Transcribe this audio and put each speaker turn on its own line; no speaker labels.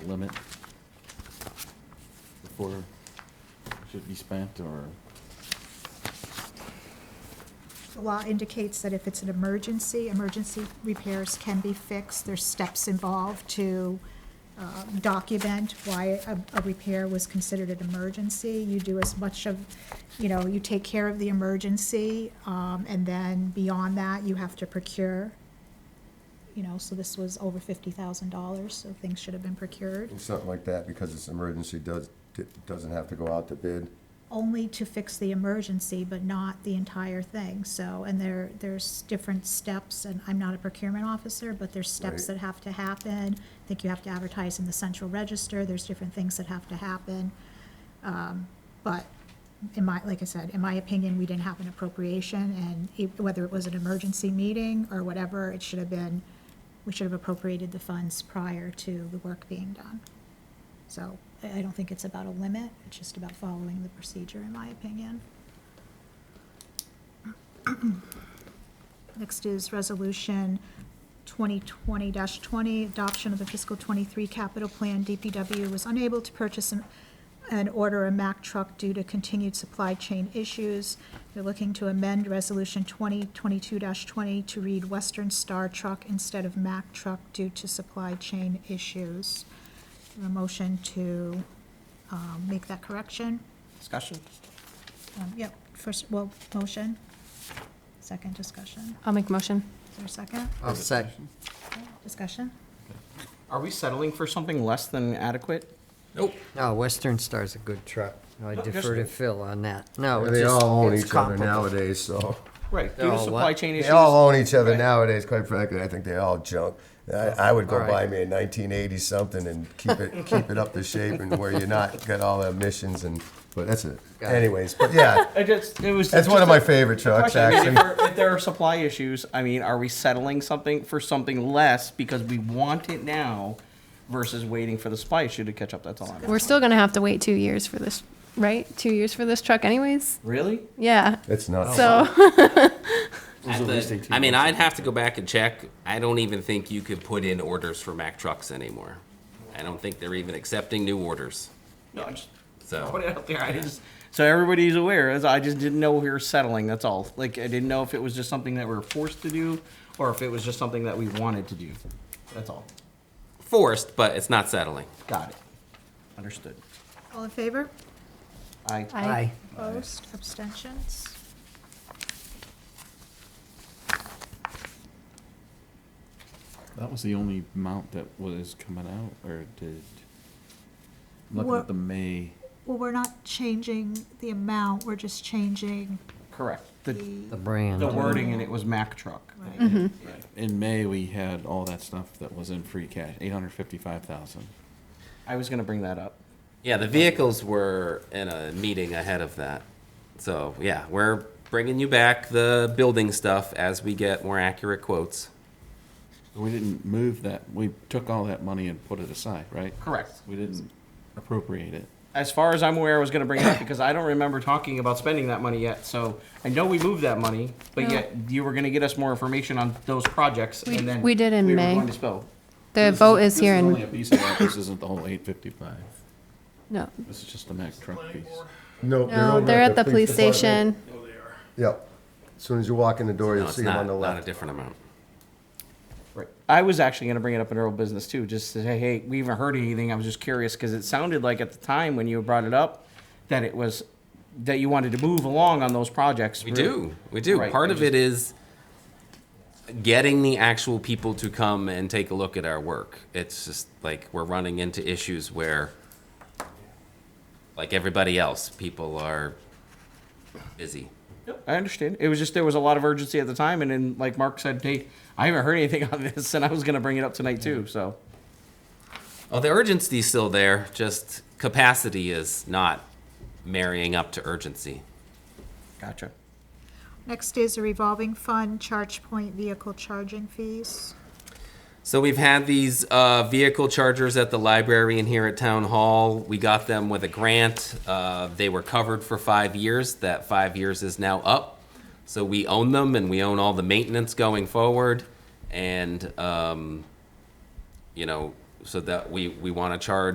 limit before it should be spent, or,
The law indicates that if it's an emergency, emergency repairs can be fixed. There's steps involved to uh, document why a, a repair was considered an emergency. You do as much of, you know, you take care of the emergency, um, and then beyond that, you have to procure. You know, so this was over fifty thousand dollars, so things should have been procured,
Something like that, because it's emergency, does, d- doesn't have to go out to bid.
only to fix the emergency, but not the entire thing, so, and there, there's different steps, and I'm not a procurement officer, but there's steps
Right.
that have to happen. I think you have to advertise in the central register, there's different things that have to happen. Um, But in my, like I said, in my opinion, we didn't have an appropriation, and it- whether it was an emergency meeting or whatever, it should have been, we should have appropriated the funds prior to the work being done. So I I don't think it's about a limit, it's just about following the procedure, in my opinion. Next is Resolution 2020-20, adoption of the fiscal '23 capital plan. DPW was unable to purchase an- and order a Mack truck due to continued supply chain issues. They're looking to amend Resolution 2022-20 to read Western Star Truck instead of Mack truck due to supply chain issues. A motion to um, make that correction?
Discussion?
Um, Yep, first, well, motion, second discussion.
I'll make a motion.
Is there a second?
I'll sec.
Okay, Discussion?
Are we settling for something less than adequate?
Nope.
No, oh, Western Star's a good truck. I
No,
defer to
just-
Phil on that. No, it's
They all own
it's
each other
comparable.
nowadays, so.
Right, due
No,
to
what?
supply chain
They
issues.
all own each other
Right.
nowadays, quite frankly, I think they all junk. I, I would go
All
buy
right.
me a nineteen eighty something and keep it, keep it up to shape and where you're not, got all the emissions and, but that's it.
Got it.
Anyways, but yeah,
I just- it was
that's
just
one of my
a
favorite trucks,
question. I mean,
actually.
If there- if there are supply issues, I mean, are we settling something for something less because we want it now versus waiting for the supply issue to catch up? That's all I'm asking.
We're still gonna have to wait two years for this, right? Two years for this truck anyways?
Really?
Yeah,
It's nuts.
so,
At the- I mean, I'd have to go back and check. I don't even think you could put in orders for Mack trucks anymore. I don't think they're even accepting new orders.
No, I just
So-
put it out there. I just so everybody's aware. As I just didn't know we were settling. That's all. Like I didn't know if it was just something that we were forced to do or if it was just something that we wanted to do. That's all.
Forced, but it's not settling.
Got it. Understood.
All in favor?
I
Aye.
Aye.
Opposed? Abstentions?
that was the only amount that was coming out, or did, I'm looking
What-
at the May,
Well, we're not changing the amount, we're just changing
correct. The
E.
the,
The brand.
the wording and it was Mack truck.
right,
Mm-hmm.
in May, we had all that stuff that was in free cash, eight hundred fifty-five thousand.
I was gonna bring that up.
Yeah, the vehicles were in a meeting ahead of that. So, yeah, we're bringing you back the building stuff as we get more accurate quotes.
We didn't move that, we took all that money and put it aside, right?
Correct.
We didn't appropriate it.
As far as I'm aware, I was gonna bring it up because I don't remember talking about spending that money yet. So I know we moved that money, but
No.
yet you were gonna get us more information on those projects
We-
and then
we did in
we
May.
Were going to spell.
the vote is here
This only a
in,
piece of that, this isn't the whole eight fifty-five,
no,
this is just the Mack truck piece.
No,
no, they're at the police
department.
station.
Yep. As Soon as you walk in the door,
No,
you'll
it's
see them
not,
on the
not a
left.
different amount.
Right. I was actually going to bring it up in Earl Business too, just to say, hey, we haven't heard anything. I was just curious because it sounded like at the time when you brought it up that it was that you wanted to move along on those projects.
We do. We do.
Right,
Part
we
of it is getting the actual people to come and take a look at our work. It's just like we're running into issues where, like everybody else, people are busy.
I understand. It was just there was a lot of urgency at the time, and then like Mark said, hey, I haven't heard anything on this, and I was going to bring it up tonight too. So
Oh, the urgency's still there, just capacity is not marrying up to urgency.
gotcha.
next is a revolving fund, charge point vehicle charging fees.
So we've had these uh, vehicle chargers at the library and here at town hall. We got them with a grant. Uh, they were covered for five years. That five years is now up. So we own them and we own all the maintenance going forward. And um, you know, so that we, we want to charge